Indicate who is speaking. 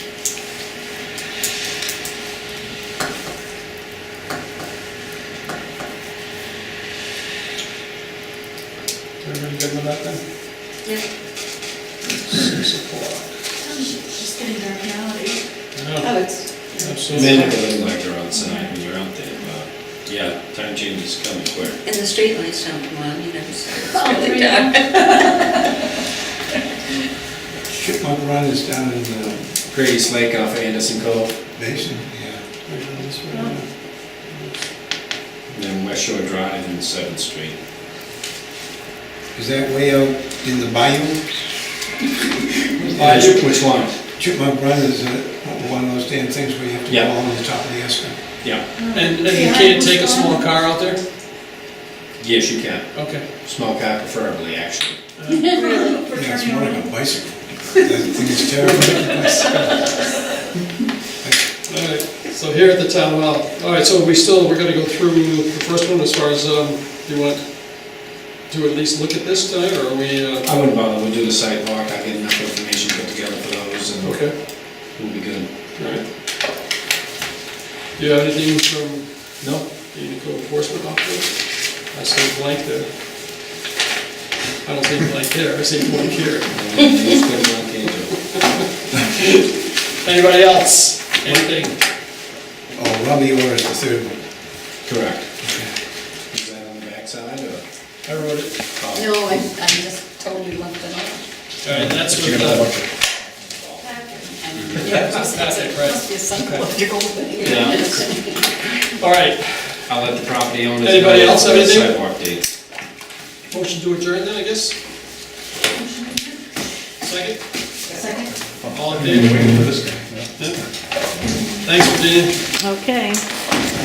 Speaker 1: good with that then?
Speaker 2: Yeah,
Speaker 1: Six o'clock.
Speaker 2: just getting dark now, eh?
Speaker 1: Yeah,
Speaker 2: Oh, it's,
Speaker 1: absolutely.
Speaker 3: Men are gonna look like they're outside when you're out there, but, yeah, time change is coming quick.
Speaker 2: and the streetlights don't come on, you know, so
Speaker 4: Oh,
Speaker 2: it's really
Speaker 4: really?
Speaker 2: dark.
Speaker 5: Chipmunk Run is down in the
Speaker 3: Grady's Lake off Anderson Cove,
Speaker 5: basin, yeah.
Speaker 1: Right on this way, yeah.
Speaker 3: and then West Shore Drive and Seventh Street.
Speaker 5: Is that way out in the bayou?
Speaker 3: Which Uh, which one?
Speaker 5: Chipmunk Run is uh, one of those damn things where you have to
Speaker 3: Yeah.
Speaker 5: go on the top of the escarpment.
Speaker 3: Yeah,
Speaker 1: And, and you can't take a small car out there?
Speaker 3: yes, you can,
Speaker 1: Okay.
Speaker 3: small car preferably, actually.
Speaker 4: For
Speaker 5: Yeah, it's
Speaker 4: turning
Speaker 5: more
Speaker 4: around.
Speaker 5: like a bicycle. That thing is terrible.
Speaker 1: All right, so here at the town hall. All right, so we still, we're gonna go through the first one as far as, um, you want to at least look at this tonight, or are we, uh,
Speaker 3: I wouldn't bother, we'll do the sidewalk, I'll get enough information put together for those, and
Speaker 1: okay?
Speaker 3: we'll be good.
Speaker 1: All right. Do you have anything from
Speaker 3: No,
Speaker 1: the code enforcement officer? I see blank there. I don't see blank there, I see blank here.
Speaker 3: it's good, not Angel.
Speaker 1: Anybody else? Anything?
Speaker 5: Oh, Robbie Orr is the third one.
Speaker 3: Correct. Is that on the backside, or?
Speaker 1: I wrote it.
Speaker 3: Oh,
Speaker 4: No, I, I just totally left it off.
Speaker 1: All right, that's
Speaker 3: you're
Speaker 1: what,
Speaker 3: gonna
Speaker 1: uh,
Speaker 3: watch it.
Speaker 1: that's it,
Speaker 4: Must
Speaker 1: right?
Speaker 4: be some logical thing.
Speaker 3: Yeah.
Speaker 1: All right,
Speaker 3: I'll let the property owners.
Speaker 1: Anybody else have anything?
Speaker 3: Sidewalk dates.
Speaker 1: motion to adjourn then, I guess? Second?
Speaker 4: Second?
Speaker 1: All in favor?
Speaker 5: Waiting for this guy.
Speaker 1: Thanks, Virginia.
Speaker 6: Okay.